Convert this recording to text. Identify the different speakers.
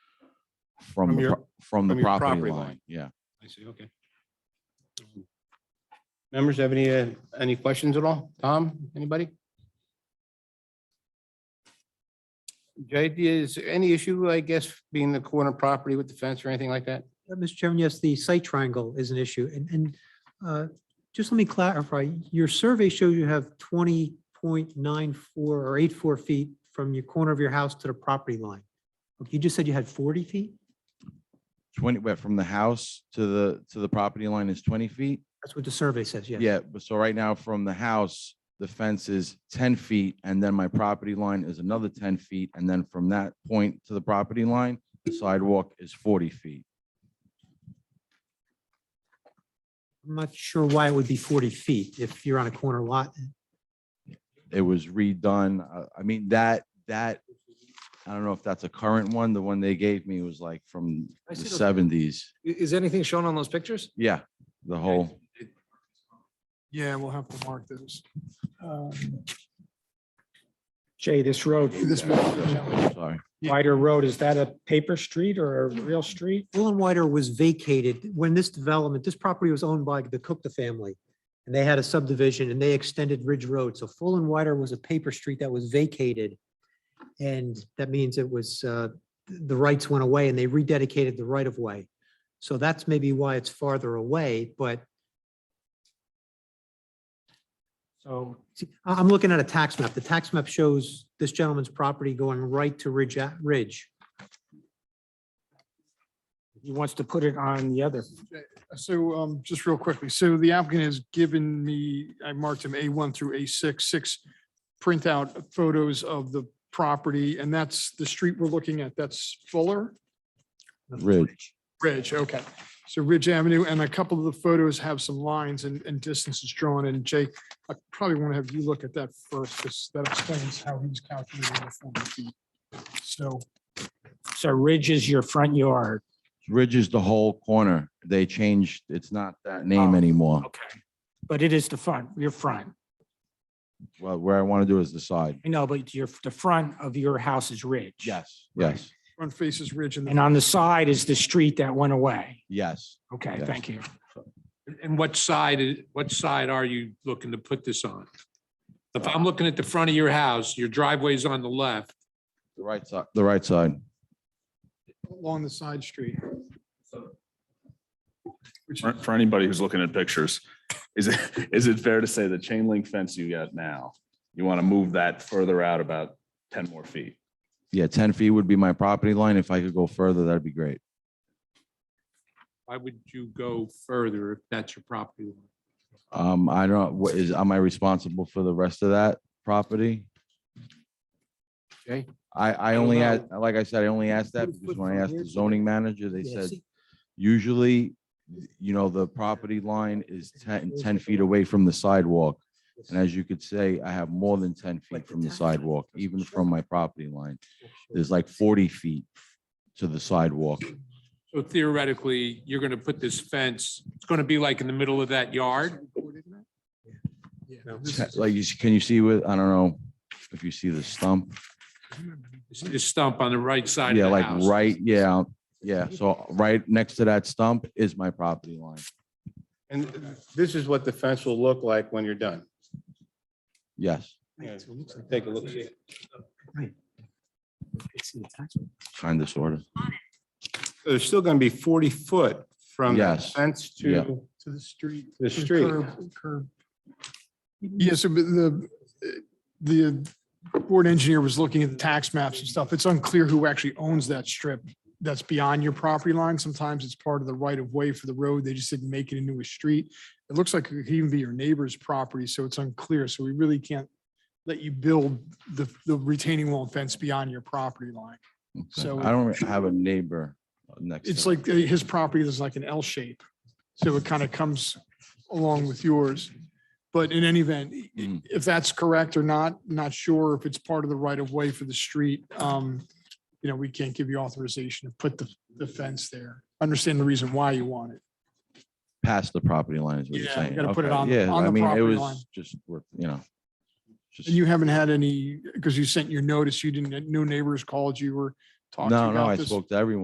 Speaker 1: from,
Speaker 2: From
Speaker 1: the
Speaker 2: your-
Speaker 1: pro- from the
Speaker 2: from your
Speaker 1: property
Speaker 2: property
Speaker 1: line.
Speaker 2: line.
Speaker 1: Yeah.
Speaker 2: I see, okay. Members have any, uh, any questions at all? Tom, anybody? Jay, is there any issue, I guess, being the corner property with the fence or anything like that?
Speaker 3: Uh, Mr. Chairman, yes, the site triangle is an issue. And, and uh, just let me clarify, your survey shows you have 20.94 or 84 feet from your corner of your house to the property line. You just said you had 40 feet?
Speaker 1: Twenty, but from the house to the, to the property line is twenty feet?
Speaker 3: That's what the survey says, yes.
Speaker 1: Yeah, but so right now from the house, the fence is ten feet and then my property line is another ten feet. And then from that point to the property line, the sidewalk is forty feet.
Speaker 3: I'm not sure why it would be 40 feet if you're on a corner lot.
Speaker 1: It was redone. Uh, I mean, that, that, I don't know if that's a current one. The one they gave me was like from
Speaker 4: I
Speaker 1: the
Speaker 4: see those.
Speaker 1: seventies.
Speaker 4: I- Is anything shown on those pictures?
Speaker 1: Yeah, the whole,
Speaker 5: Yeah, we'll have to mark those. Um, Jay, this road, this
Speaker 1: sorry.
Speaker 5: wider road, is that a paper street or a real street?
Speaker 3: Woolen Wider was vacated when this development, this property was owned by the Cookta family. And they had a subdivision and they extended Ridge Road. So Full and Wider was a paper street that was vacated. And that means it was, uh, the rights went away and they rededicated the right of way. So that's maybe why it's farther away, but
Speaker 5: So
Speaker 3: see, I- I'm looking at a tax map. The tax map shows this gentleman's property going right to Ridge, A- Ridge.
Speaker 5: he wants to put it on the other.
Speaker 6: So um, just real quickly, so the applicant has given me, I marked him A1 through A6, six printout photos of the property, and that's the street we're looking at. That's Fuller
Speaker 1: Ridge.
Speaker 6: Ridge, okay. So Ridge Avenue, and a couple of the photos have some lines and, and distances drawn, and Jake, I probably want to have you look at that first, because that explains how he's calculating the 40 feet. So
Speaker 5: So Ridge is your front yard.
Speaker 1: Ridge is the whole corner. They changed, it's not that name
Speaker 5: Oh.
Speaker 1: anymore.
Speaker 5: Okay. But it is the front, your front.
Speaker 1: Well, where I want to do is the side.
Speaker 5: I know, but your, the front of your house is Ridge.
Speaker 1: Yes.
Speaker 5: Right.
Speaker 1: Yes,
Speaker 6: front faces Ridge and
Speaker 5: And
Speaker 6: the
Speaker 5: on the side is the street that went away.
Speaker 1: yes.
Speaker 5: Okay,
Speaker 1: Yes.
Speaker 5: thank you.
Speaker 7: And what side, i- what side are you looking to put this on? If I'm looking at the front of your house, your driveway's on the left.
Speaker 1: The right side, the right side.
Speaker 6: along the side street. Which
Speaker 8: For, for anybody who's looking at pictures, is it, is it fair to say the chain link fence you got now, you want to move that further out about ten more feet?
Speaker 1: Yeah, ten feet would be my property line. If I could go further, that'd be great.
Speaker 7: Why would you go further if that's your property? line?
Speaker 1: Um, I don't, know, what is, am I responsible for the rest of that property?
Speaker 2: Okay.
Speaker 1: I, I
Speaker 2: don't
Speaker 1: only
Speaker 2: know.
Speaker 1: asked, like I said, I only asked that
Speaker 3: Put a
Speaker 1: because
Speaker 3: foot
Speaker 1: when I
Speaker 3: from
Speaker 1: asked
Speaker 3: here
Speaker 1: the
Speaker 3: to
Speaker 1: zoning manager, they
Speaker 3: Yeah,
Speaker 1: said
Speaker 3: see,
Speaker 1: usually, you know, the property line is 10 10 feet away from the sidewalk. And as you could say, I have more than ten feet
Speaker 3: Like the
Speaker 1: from the
Speaker 3: tax map
Speaker 1: sidewalk,
Speaker 3: doesn't
Speaker 1: even
Speaker 3: show
Speaker 1: from my property line. There's like forty feet to the sidewalk.
Speaker 7: So theoretically, you're going to put this fence, it's going to be like in the middle of that yard.
Speaker 1: Te- Like, you s- can you see with, I don't know if you see the stump?
Speaker 7: It's the stump on the right side
Speaker 1: Yeah,
Speaker 7: of the
Speaker 1: like
Speaker 7: house.
Speaker 1: right, yeah, um, yeah. So right next to that stump is my property line.
Speaker 2: And this is what the fence will look like when you're done.
Speaker 1: Yes,
Speaker 2: Take a look. see it.
Speaker 3: it's in the tax map.
Speaker 1: kind of, sort of.
Speaker 2: So There's still going to be 40 foot from the
Speaker 1: Yes.
Speaker 2: fence
Speaker 1: Yeah.
Speaker 2: to
Speaker 6: To the street.
Speaker 2: the
Speaker 6: The
Speaker 2: street.
Speaker 6: curb- Curb. Yes, but the, the board engineer was looking at the tax maps and stuff. It's unclear who actually owns that strip that's beyond your property line. Sometimes it's part of the right of way for the road. They just didn't make it into a street. It looks like it could even be your neighbor's property, so it's unclear. So we really can't let you build the, the retaining wall and fence beyond your property line.
Speaker 1: Okay.
Speaker 6: So-
Speaker 1: I don't have a neighbor next. to
Speaker 6: It's
Speaker 1: me.
Speaker 6: like uh, his property is like an L shape. So it kind of comes along with yours. But in any event, i-
Speaker 1: Mm.
Speaker 6: if that's correct or not, not sure if it's part of the right of way for the street. Um, You know, we can't give you authorization to put the, the fence there. Understand the reason why you want it.
Speaker 1: Past the property line is what you're
Speaker 6: Yeah,
Speaker 1: saying.
Speaker 6: you gotta put it
Speaker 1: Okay,
Speaker 6: on-
Speaker 1: Yeah,
Speaker 6: on
Speaker 1: I
Speaker 6: the
Speaker 1: mean, it
Speaker 6: property line.
Speaker 1: was just, worth you know. just-
Speaker 6: And you haven't had any, because you sent your notice, you didn't, no neighbors called you or talked to you
Speaker 1: No, no, I
Speaker 6: about this.
Speaker 1: spoke to everyone.